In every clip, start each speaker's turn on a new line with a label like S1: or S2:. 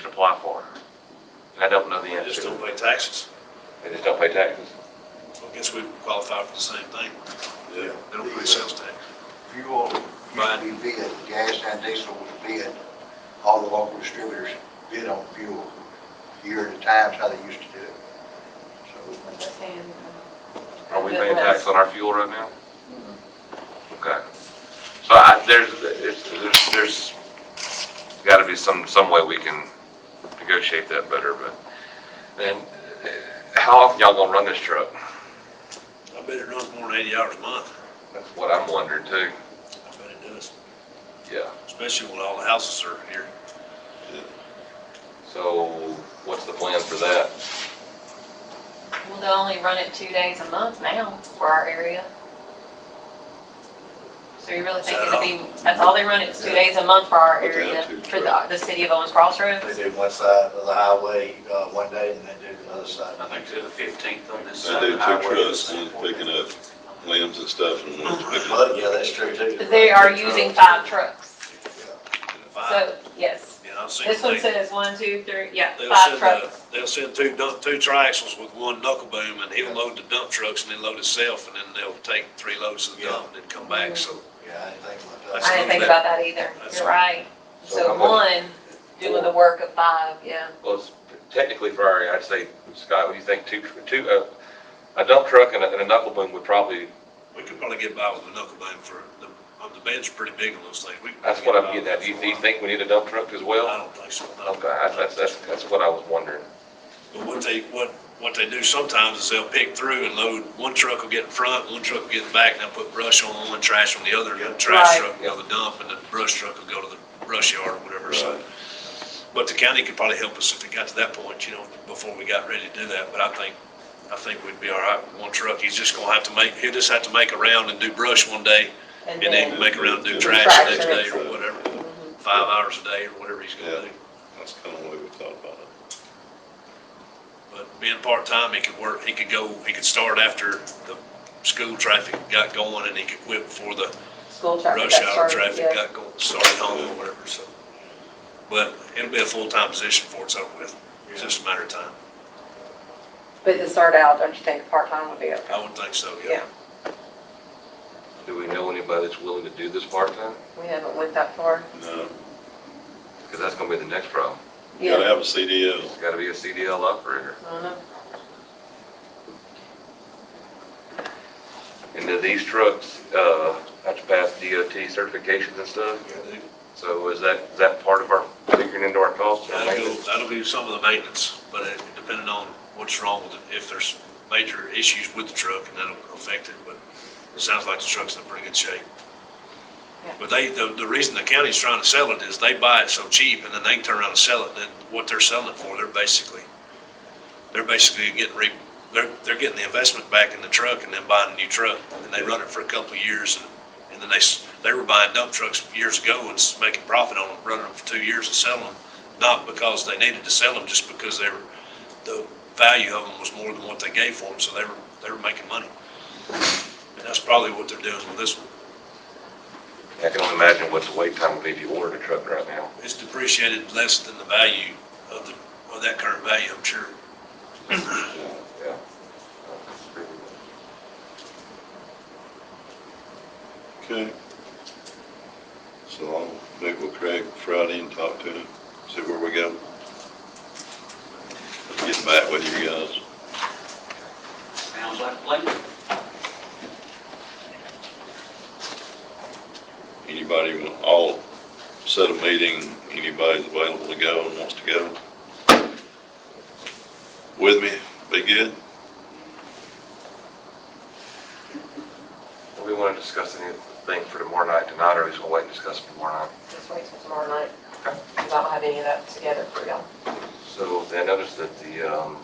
S1: apply for. And I don't know the
S2: They
S1: answer.
S2: just don't pay taxes.
S1: They just don't pay taxes.
S2: So I guess we qualify for the same thing.
S3: Yeah.
S2: They don't pay sales tax.
S3: Fuel,
S2: Right.
S3: we bid, gas and diesel was bid, all the local distributors bid on fuel, a year at a time, is how they used to do it. So,
S1: Are we paying tax on our fuel right now? Mm-hmm. Okay. So I, there's, it's- there's, there's gotta be some, some way we can negotiate that better, but then, uh, how often y'all gonna run this truck?
S2: I bet it runs more than eighty hours a month.
S1: That's what I'm wondering too.
S2: I bet it does,
S1: Yeah.
S2: especially when all the houses are here.
S1: So what's the plan for that?
S4: Well, they only run it two days a month now for our area. So you really think it'd be, that's all they run it, is two days a month for our
S5: But they have
S4: area,
S5: two
S4: for the, the city of Owens Crossroads?
S3: They do one side of the highway, uh, one day, and they do the other side.
S6: I think they're the fifteenth on this
S5: I
S6: side
S5: do
S6: of the
S5: two
S6: highway.
S5: trucks, one's picking up limbs and stuff, and one's picking up.
S3: But, yeah, that's true too.
S4: But They are using five trucks,
S2: Five,
S4: so, yes.
S2: and I've seen.
S4: This one
S2: they-
S4: says one, two, three, yeah,
S2: They'll
S4: five
S2: send, uh,
S4: trucks.
S2: they'll send two dump, two triaxles with one knuckle boom and he'll load the dump trucks and then load himself and then they'll take three loads to the dump and then come back, so.
S3: Yeah, I didn't think about
S2: I
S3: that.
S4: I didn't think about that either,
S2: That's
S4: you're
S2: right.
S4: right. So one doing the work of five, yeah.
S1: Well, it's technically for our, area, I'd say, Scott, what do you think? Two, two, uh, a dump truck and a, and a knuckle boom would probably,
S2: We could probably get by with a knuckle boom for, the, uh, the beds are pretty big on those things. We could
S1: that's what I'm
S2: probably
S1: getting
S2: get
S1: at.
S2: by
S1: Do you,
S2: with
S1: do you
S2: that
S1: think we need a dump truck as
S2: for a while. I
S1: well?
S2: don't think so. no.
S1: Okay, I- that's, that's, that's what I was wondering.
S2: But what they, what, what they do sometimes is they'll pick through and load, one truck will get in front, one truck will get in back, and they'll put brush on one, trash on the other, and the trash
S4: Right.
S2: truck will go to the dump, and the brush truck will go to the brush yard or whatever, so. But the county could probably help us if it got to that point, you know, before we got ready to do that, but I think, I think we'd be all right with one truck. He's just gonna have to make, he'll just have to make a round and do brush one day, and then make a round and do trash the next day or whatever, five hours a day or whatever he's gonna do.
S5: That's kind of what we thought about it.
S2: But being part-time, he could work, he could go, he could start after the school traffic got going and he could quit before the
S4: School
S2: rush hour traffic got going, started home or whatever, so. But it'll be a full-time position for it's over with. It's just a matter of time.
S7: But to start out, don't you think part-time would be okay?
S2: I would think so, yeah.
S7: Yeah.
S1: Do we know anybody that's willing to do this part-time?
S7: We haven't went that far.
S5: No,
S1: Because that's gonna be the next problem.
S5: you gotta have a CDL.
S1: It's gotta be a CDL operator.
S7: I don't know.
S1: And do these trucks, uh, have to pass DOT certifications and stuff? So is that, is that part of our figuring into our costs? or
S2: That'll go,
S1: maintenance?
S2: that'll be some of the maintenance, but it, depending on what's wrong with it, if there's major issues with the truck and that'll affect it, but it sounds like the truck's in pretty good shape.
S7: Yeah.
S2: But they, the, the reason the county's trying to sell it is they buy it so cheap and then they can turn around and sell it, then what they're selling it for, they're basically, they're basically getting re, they're, they're getting the investment back in the truck and then buying a new truck, and they run it for a couple of years, and, and then they, s- they were buying dump trucks years ago and s- making profit on them, running them for two years and selling them, not because they needed to sell them, just because they were, the value of them was more than what they gave for them, so they were, they were making money. And that's probably what they're doing with this one.
S1: I can only imagine what the wait time would be if you ordered a truck right now.
S2: It's depreciated less than the value of the, of that current value, I'm sure.
S1: Yeah.
S5: Okay. So I'll meet with Craig Friday and talk to him, see where we go. Get back with you guys.
S6: Sounds like a plan.
S5: Anybody, want- I'll set a meeting, anybody's available to go and wants to go. With me, be good?
S1: Do we want to discuss anything for tomorrow night tonight, or we just want to wait and discuss it tomorrow night?
S7: Just wait till tomorrow night, because I don't have any of that together for y'all.
S1: So I noticed that the um,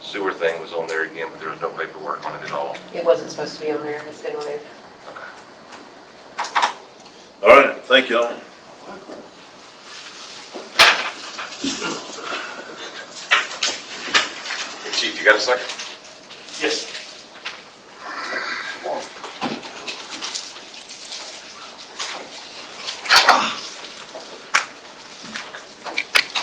S1: sewer thing was on there again, but there was no paperwork on it at all.
S7: It wasn't supposed to be on there, it's been on there.
S5: All right, thank y'all.
S1: Chief, you got a second?
S6: Yes.